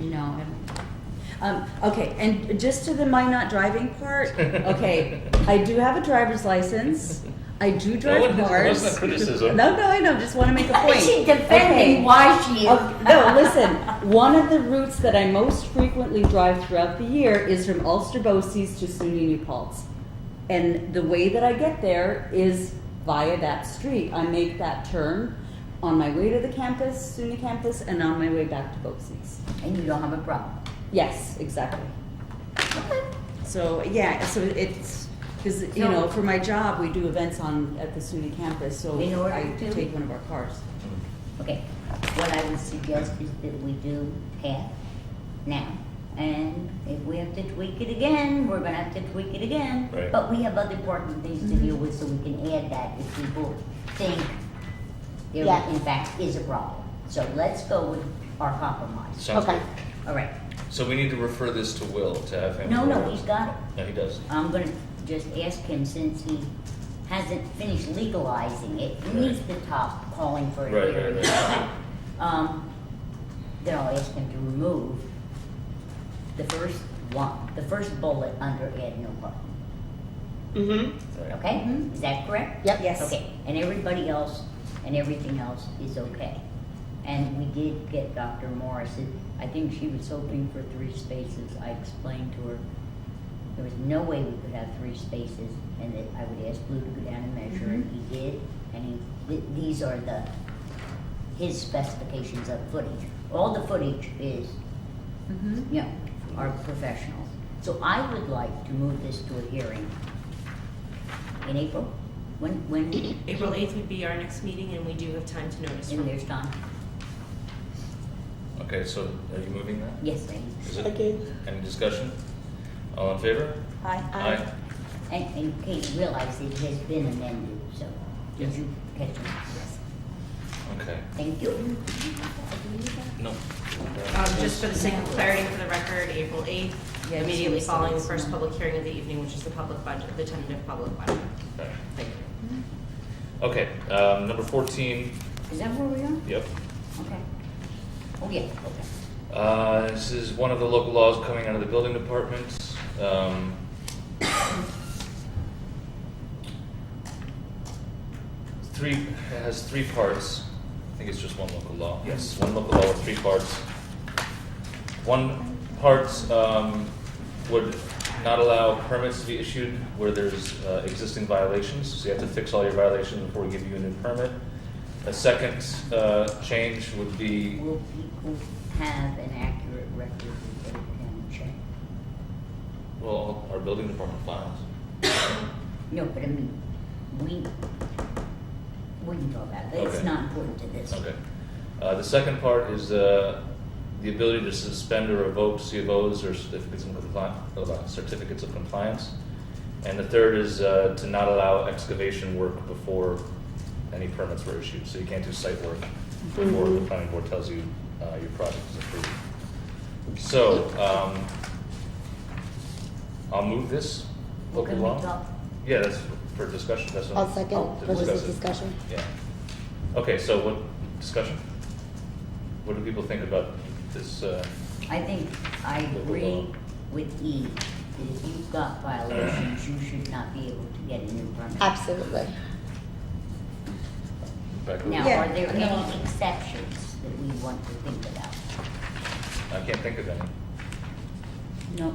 you know, and, um, okay, and just to the my not driving part, okay, I do have a driver's license. I do That drive wasn't- that cars. wasn't a criticism. No, no, I know, just wanna make a point. She Okay. defending why she. Oh, no, listen. One of the routes that I most frequently drive throughout the year is from Ulster Boces to SUNY New Paltz. And the way that I get there is via that street. I make that turn on my way to the campus, SUNY campus, and on my way back to Boces. And you don't have a problem. Yes, exactly. So, yeah, so it's, because, you So- know, for my job, we do events on, at the SUNY campus, so In order I to- take one of our cars. Okay, what I would suggest is that we do path now. And if we have to tweak it again, we're gonna have to tweak it again. Right. But we have other important things to deal with, so we can add that if people think there Yeah. in fact is a problem. So let's go with our compromise. Sounds Okay. good. All right. So we need to refer this to Will to have him. No, no, forward. he's got it. No, he does. I'm gonna just ask him, since he hasn't finished legalizing it, and he's the top calling for Right, it right, here. right. Um, then I'll ask him to remove the first one, the first bullet under add no parking, Mm-hmm. Right. okay? Mhm. Is that correct? Yep. Yes. Okay, and everybody else, and everything else is okay. And we did get Dr. Morris, and I think she was hoping for three spaces, I explained to her, there was no way we could have three spaces, and that I would ask Lou to go down and measure, and Mm-hmm. he did, and he, th- these are the, his specifications of footage. All the footage is, you know, are professional. So I would like to move this to a hearing in April, when, when, April eighth would be our next meeting, and we do have time to notice. in from- there's time, Okay, so are you moving that? yes, please. Is it- Again. Any discussion? All in favor? Hi. Aye. And, and Kate realized it has been amended, so, did you catch it? Yes. Okay, Thank you. no. Um, just for the sake of clarity for the record, April eighth, Yeah, just immediately so following the it's first not- public hearing of the evening, which is the public budget, the tentative public budget. Okay. Thank you. Okay, um, number fourteen, Is that where we are? yep. Okay. Oh, yeah, okay. Uh, this is one of the local laws coming out of the building department. Um, three it has three parts. I think it's just one local law. Yes, one local law with three parts. One part um, would not allow permits to be issued where there's uh, existing violations, so you have to fix all your violations before we give you a new permit. A second uh, change would be Will people have an accurate record that they can check? Well, our building department files. No, but I mean, we, we can talk about it, it's Okay. not important to this. Okay. Uh, the second part is, uh, the ability to suspend or revoke CFOs or certificates of compliance, certificates of compliance. And the third is, uh, to not allow excavation work before any permits were issued, so you can't do site work before the planning board tells you, uh, your project is approved. So, um, I'll move this Well, local can we law. talk? Yeah, that's for discussion, that's. I'll second. to Oh, Was discuss this Oh, it. discussion? Yeah. Okay, so what, discussion? What do people think about this, uh, I think I Local agree law. with E, that if you've got violations, you should not be able to get a new permit. Absolutely. back? Now, Yeah, are there no. any exceptions that we want to think about? I can't think of any. No.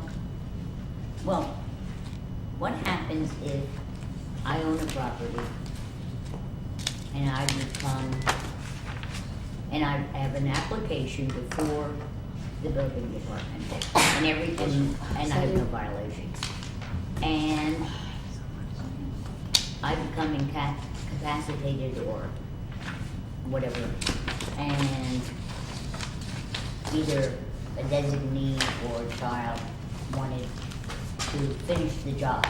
Well, what happens if I own a property and I become, and I have an application before the building department and everything, and I have no violations? And I become inca- incapacitated or whatever, and either a designee or a child wanted to finish the job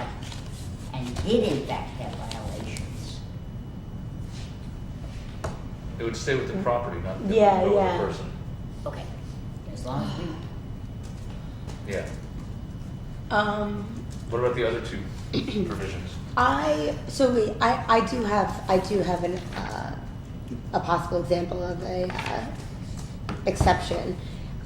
and did in fact have violations. It would stay with the property, not the Yeah, not with yeah. the person. Okay, as long as we, Yeah. Um, What about the other two provisions? I so we I, I do have I do have an uh, a possible example of a uh, exception